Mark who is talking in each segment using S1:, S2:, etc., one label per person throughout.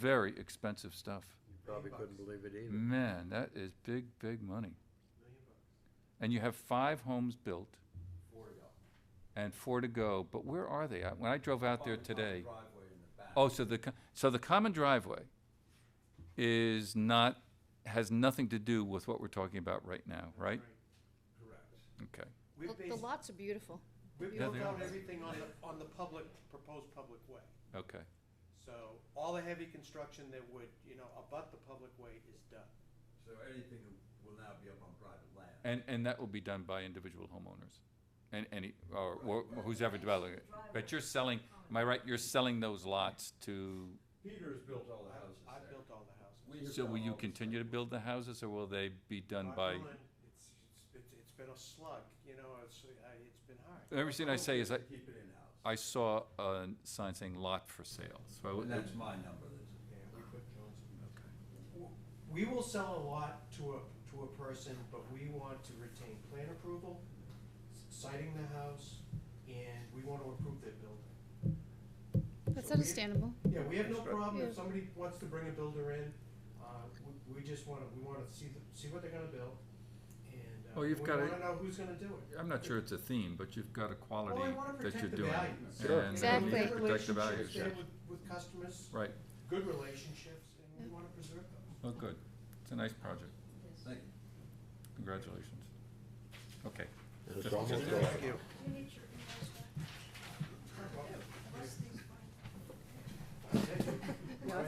S1: very expensive stuff.
S2: You probably couldn't believe it either.
S1: Man, that is big, big money. And you have five homes built. And four to go, but where are they? I- When I drove out there today. Oh, so the, co- so the common driveway is not, has nothing to do with what we're talking about right now, right?
S3: Correct.
S1: Okay.
S3: We
S4: Look, The
S3: based,
S4: lots are beautiful.
S3: we
S1: Yeah,
S3: built
S1: they
S3: out
S1: are.
S3: everything on the, on the public, proposed public way.
S1: Okay,
S3: So all the heavy construction that would, you know, abut the public way is done.
S5: So anything will now be up on private land.
S1: and, and that will be done by individual homeowners, and any, or, or who's ever developing it. But you're selling, am I right, you're selling those lots to,
S5: Peter's built all the
S3: I-
S5: houses
S3: I
S5: there.
S3: built all the houses.
S5: We have
S1: so
S5: done
S1: will you
S5: all the
S1: continue to
S5: stuff.
S1: build the houses, or will they be done
S3: Knock
S1: by?
S3: on wood, It's, it's, it's been a slug, you know, it's, I- it's been hard.
S1: Everything I say is I,
S5: Keep it in-house.
S1: I saw a sign saying lot for sale, so I
S5: And
S1: would-
S5: that's my number, that's.
S6: We will sell a lot to a, to a person, but we want to retain plan approval, citing the house, and we want to approve their building.
S4: That's
S6: So we-
S4: understandable.
S6: Yeah, we have no problem
S4: Yeah.
S6: if somebody wants to bring a builder in, uh, we, we just wanna, we wanna see, the- see what they're gonna build, and, uh,
S1: Well,
S6: we
S1: you've gotta-
S6: wanna know who's gonna do it.
S1: I'm not sure it's a theme, but you've got a quality
S6: wanna
S1: that
S6: protect
S1: you're
S6: the
S1: doing.
S6: value.
S1: and uh,
S6: Sure.
S1: you need to
S4: Exactly.
S6: Good
S1: Protect the value,
S6: relationships there with, with customers,
S1: right,
S6: good relationships, and we wanna preserve those.
S1: oh, good, it's a nice project,
S5: Thank you.
S1: congratulations. Okay.
S2: It's almost like,
S7: You need your emails back. Unless these find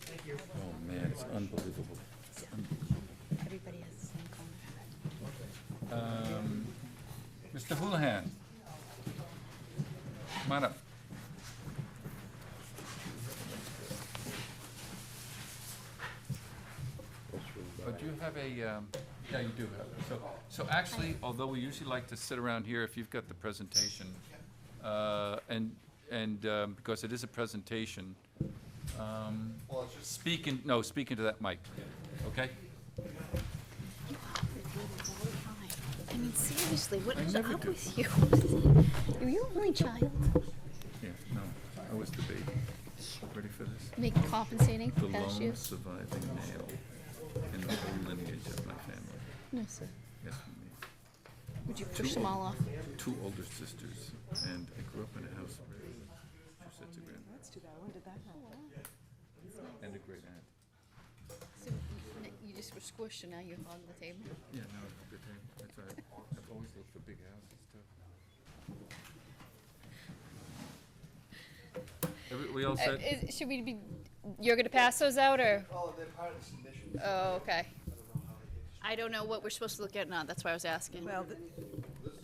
S6: Thank you.
S1: Oh, man, it's unbelievable.
S4: Everybody has the same comment.
S1: Um, Mr. Houlihan. Come on up. But you have a, um, yeah, you do have, so, so actually, although we usually like to sit around here if you've got the presentation, uh, and, and, um, because it is a presentation, um, speak in, no, speak into that mic, okay?
S4: You are. I mean, seriously, what
S1: I
S4: is
S1: never
S4: up
S1: do.
S4: with you? Are you only child?
S1: Yeah, no, I was the baby. Ready for this?
S4: Make compensating
S1: The
S4: for past
S1: lone
S4: years?
S1: surviving male in the whole lineage of my family.
S4: No, sir.
S1: Yes, me.
S4: Would you push them all off?
S1: Two older sisters, and I grew up in a house with two sets of grandparents and a great aunt.
S4: So You just were squished and now you hog the table?
S1: Yeah, no, it's a good thing. That's right. I've always looked for big houses too. Every, we all
S8: Uh,
S1: said,
S8: is- Should we be, you're gonna pass those out, or?
S3: Oh, they're part of the submission.
S8: Oh, okay.
S3: I don't know how it is.
S8: I don't know what we're supposed to look at now, that's why I was asking.
S7: Well,
S8: All
S7: th-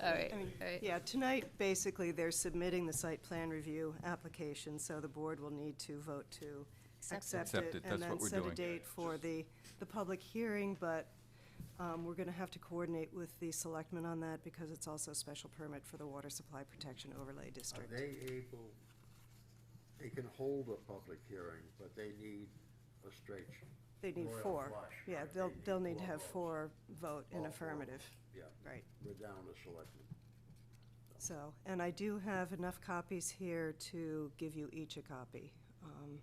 S8: right,
S7: I
S8: all
S7: mean,
S8: right.
S7: yeah, tonight, basically, they're submitting the site plan review application, so the board will need to vote to
S4: Accept it.
S7: accept
S1: Accept
S7: it.
S1: it, that's what we're doing.
S7: And then set a date for the, the public hearing, but um, we're going to have to coordinate with the selectmen on that because it's also a special permit for the Water Supply Protection Overlay
S2: are
S7: District.
S2: they able, they can hold a public hearing, but they need a straight,
S7: They need
S2: Royal
S7: four.
S2: flush,
S7: Yeah,
S2: right,
S7: they'll,
S2: they need
S7: they'll need to
S2: four
S7: have
S2: votes.
S7: four vote
S2: All
S7: in
S2: Oh, four.
S7: affirmative,
S2: yeah,
S7: right.
S2: we're down to selectmen.
S7: So, and I do have enough copies here to give you each a copy. Um,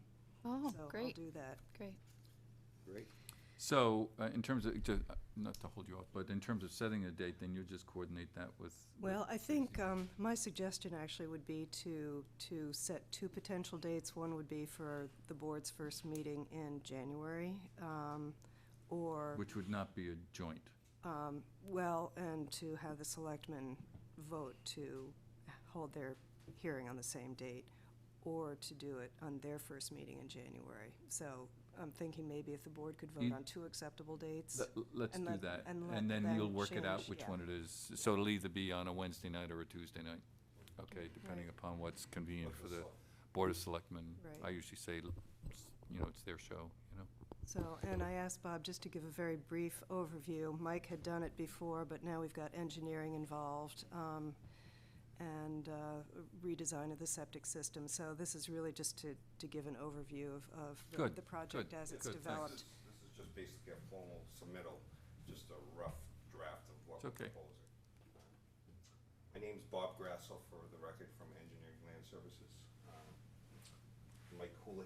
S8: Oh,
S7: So I'll
S8: great,
S7: do that.
S8: great.
S2: Great,
S1: so, uh, in terms of, to- uh, not to hold you off, but in terms of setting a date, then you just coordinate that with. with
S7: Well, I think um, my suggestion actually would be to, to set two potential dates. One would be for the board's first meeting in January, um, or,
S1: Which would not be a joint.
S7: um, well, and to have the selectmen vote to hold their hearing on the same date, or to do it on their first meeting in January. So I'm thinking maybe if the board could vote
S1: You-
S7: on two acceptable dates.
S1: Let- Let's
S7: and
S1: do
S7: let-
S1: that,
S7: and
S1: and
S7: let
S1: then you'll
S7: them
S1: work it out
S7: change,
S1: which
S7: yeah.
S1: one it is. So it'll either be on a Wednesday night or a Tuesday night, okay, depending upon what's convenient for the Board of Selectmen. I
S7: Right.
S1: usually say, l- s- you know, it's their show, you know?
S7: So, and I asked Bob just to give a very brief overview. Mike had done it before, but now we've got engineering involved um, and uh, redesign of the septic system. So this is really just to, to give an overview of, of the-
S1: Good,
S7: the project
S1: good,
S7: as it's
S1: good, thanks.
S7: developed.
S9: This is just basically a formal submittal, just a rough draft of what
S1: It's
S9: we're
S1: okay.
S9: proposing. My name's Bob Grassel, for the record, from Engineering Land Services. Um, Mike Cooley